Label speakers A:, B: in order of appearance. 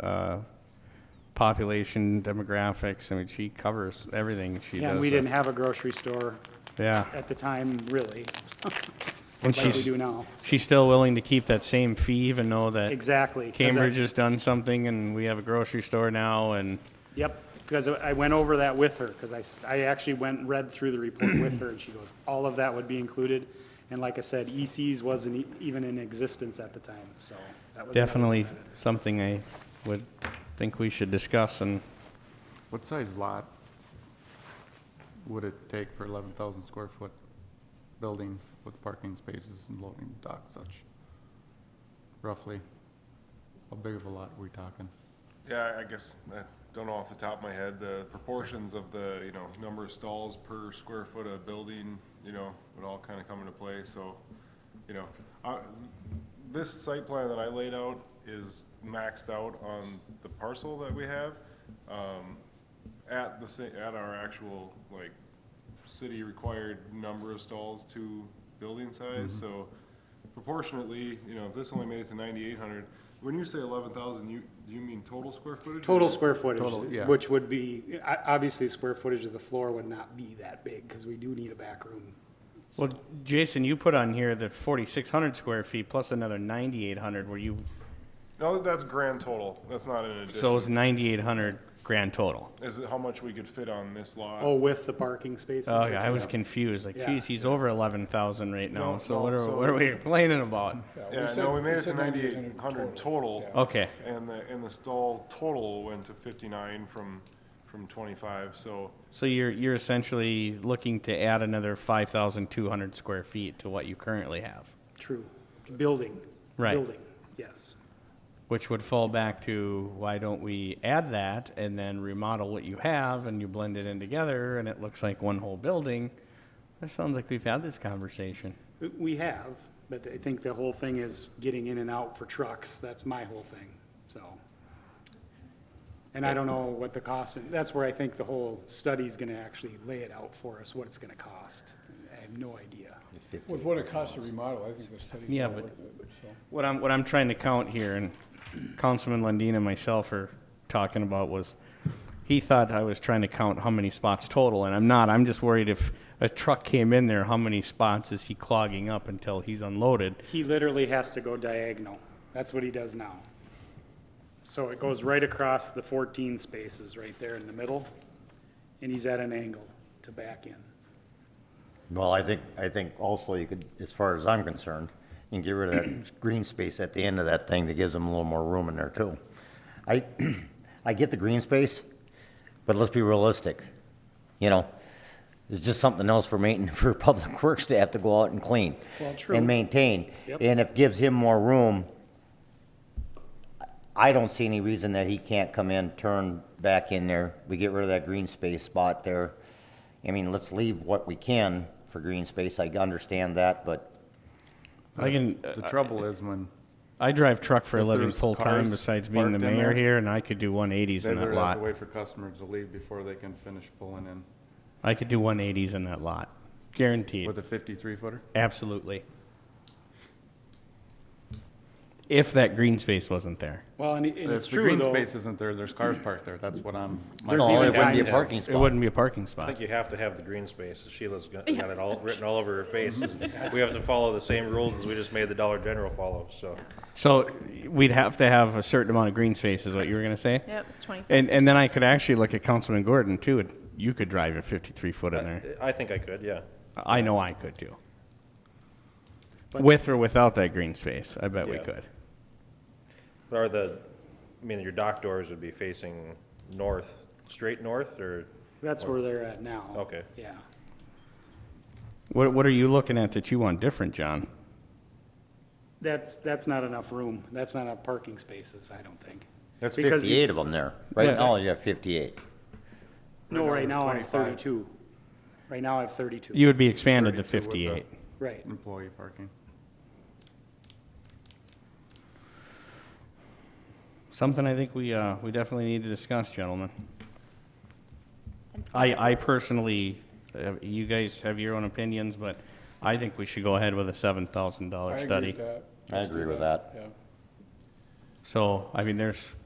A: uh, population demographics. I mean, she covers everything. She
B: Yeah,
A: does.
B: and we
A: uh,
B: didn't have a grocery store
A: Yeah,
B: at the time, really,
A: and
B: like we
A: she's
B: do now.
A: she's still willing to keep that same fee, even though that
B: Exactly. 'cause I-
A: Cambridge has done something, and we have a grocery store now, and
B: Yep, because I went over that with her, because I, s- I actually went and read through the report with her, and she goes, all of that would be included. And like I said, ECs wasn't e- even in existence at the time, so that was. another
A: definitely
B: benefit.
A: something I would think we should discuss. And
C: What size lot would it take for eleven thousand square foot building with parking spaces and loading dock such? Roughly, how big of a lot are we talking?
D: Yeah, I- I guess, I don't know off the top of my head, the proportions of the, you know, number of stalls per square foot of building, you know, would all kind of come into play, so, you know. I- This site plan that I laid out is maxed out on the parcel that we have. um, At the, sa- at our actual, like, city required number of stalls to building size, so proportionately, you know, if this only made it to ninety-eight hundred, when you say eleven thousand, you, do you mean total square footage?
B: Total
D: or-
B: square
C: Total, yeah.
B: footage, which would be, o- obviously, square footage of the floor would not be that big, because we do need a back room.
A: well, Jason, you put on here that 4,600 square feet plus another 9,800. Were you
D: No, that's grand total, that's not an
A: so it
D: addition,
A: was 9,800 grand total?
D: is it how much we could fit on this lot?
B: Oh, with the parking spaces?
A: Oh yeah, I
B: okay.
A: was confused. Like,
B: Yeah.
A: geez, he's over 11,000 right now.
D: No,
A: so
D: no,
A: what are
D: so-
A: what are we complaining about?
D: Yeah, no, we made it to ninety-eight hundred total.
A: Okay.
D: And the, and the stall total went to fifty-nine from, from twenty-five, so,
A: So you're, you're essentially looking to add another five thousand two hundred square feet to what you currently have,
B: True, building.
A: Right.
B: Building, yes.
A: which would fall back to, why don't we add that and then remodel what you have and you blend it in together and it looks like one whole building? That sounds like we've had this conversation.
B: We have, but I think the whole thing is getting in and out for trucks, that's my whole thing, so. And I don't know what the cost, that's where I think the whole study's gonna actually lay it out for us, what it's gonna cost. I have no idea.
E: With what it costs to remodel, I think the study's
A: Yeah,
E: well
A: but-
E: worth it, so.
A: What I'm, what I'm trying to count here, and Councilman Lundin and myself are talking about was, he thought I was trying to count how many spots total, and I'm not. I'm just worried if a truck came in there, how many spots is he clogging up until he's unloaded?
B: He literally has to go diagonal, that's what he does now. So it goes right across the fourteen spaces right there in the middle, and he's at an angle to back in.
F: Well, I think, I think also you could, as far as I'm concerned, you can get rid of that green space at the end of that thing that gives them a little more room in there too. I, I get the green space, but let's be realistic, you know? It's just something else for maintenance, for public works to have to go out and clean.
B: Well, true.
F: And maintain.
B: Yep.
F: And if gives him more room, I don't see any reason that he can't come in, turn back in there. We get rid of that green space spot there. I mean, let's leave what we can for green space. I understand that, but
A: I can,
C: The trouble is when
A: I drive truck for a
C: If
A: living
C: there's
A: full-time
C: cars
A: besides being the
C: parked in
A: mayor
C: there,
A: here, and I could do one eighties
C: they
A: in that
C: literally have to
A: lot.
C: wait for customers to leave before they can finish pulling in
A: I could do one eighties in that lot, guaranteed.
C: with a fifty-three footer.
A: Absolutely. If that green space wasn't there.
B: Well, and it- and it's
C: If the
B: true
C: green
B: though.
C: space isn't there, there's cars parked there, that's what I'm. my
B: There's
F: no,
B: even
F: it wouldn't be a
B: times-
F: parking
A: It
F: spot.
A: wouldn't be a parking
G: I
A: spot.
G: think you have to have the green space. Sheila's got got it all written all over her face. We have to follow the same rules as we just made the Dollar General follow, so.
A: So we'd have to have a certain amount of green space, is what you were gonna say?
H: Yep, it's 25.
A: And, and then I could actually look at Councilman Gordon too, and you could drive a fifty-three foot
G: Uh,
A: in there.
G: I think I could, yeah.
A: I know I could too.
B: But-
A: With or without that green space, I bet we
G: Yeah.
A: could.
G: Or the, I mean, your dock doors would be facing north, straight north, or,
B: That's where they're at now.
G: Okay.
B: Yeah.
A: What, what are you looking at that you want different, John?
B: That's, that's not enough room. That's not enough parking spaces, I don't think.
F: That's
B: Because you-
F: fifty-eight of them there.
A: Yeah.
F: Right now, you have fifty-eight.
B: No, right now I have
C: 25.
B: thirty-two. Right now I have thirty-two.
A: You would be expanded to
C: 32 with a-
A: fifty-eight.
B: Right.
C: Employee parking.
A: Something I think we, uh, we definitely need to discuss, gentlemen. I, I personally, uh, you guys have your own opinions, but I think we should go ahead with a seven thousand
E: I
A: dollar
E: agree
A: study.
E: with that.
F: I
E: Let's do
F: agree with
E: Yeah.
A: So, I mean, there's